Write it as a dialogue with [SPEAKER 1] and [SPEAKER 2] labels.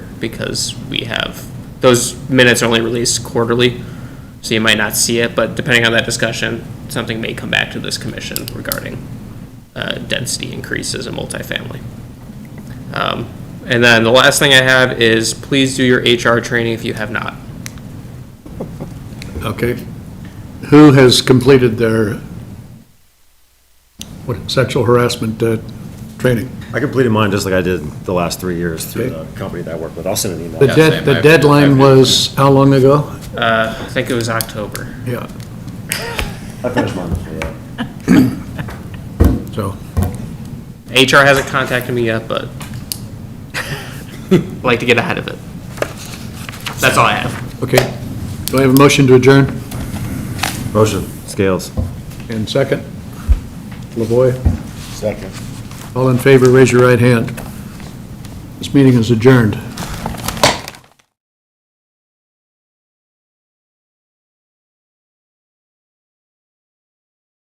[SPEAKER 1] because we have, those minutes are only released quarterly, so you might not see it, but depending on that discussion, something may come back to this commission regarding uh, density increases in multifamily. Um, And then the last thing I have is please do your HR training if you have not.
[SPEAKER 2] Okay. Who has completed their, what, sexual harassment uh, training?
[SPEAKER 3] I completed mine just like I did the last three years through
[SPEAKER 2] Okay.
[SPEAKER 3] the company that I work with. I'll send an email.
[SPEAKER 2] The
[SPEAKER 4] Yeah,
[SPEAKER 2] dead,
[SPEAKER 4] same.
[SPEAKER 2] the
[SPEAKER 4] I've-
[SPEAKER 2] deadline
[SPEAKER 4] I've-
[SPEAKER 2] was how long ago?
[SPEAKER 1] I think it was October.
[SPEAKER 2] Yeah,
[SPEAKER 3] I finished mine before that.
[SPEAKER 2] so,
[SPEAKER 1] HR hasn't contacted me yet, but I'd like to get ahead of it. That's all I have.
[SPEAKER 2] okay. Do I have a motion to adjourn?
[SPEAKER 3] Motion, Scales.
[SPEAKER 2] And second? Lavoy?
[SPEAKER 3] Second.
[SPEAKER 2] All in favor, raise your right hand. This meeting is adjourned.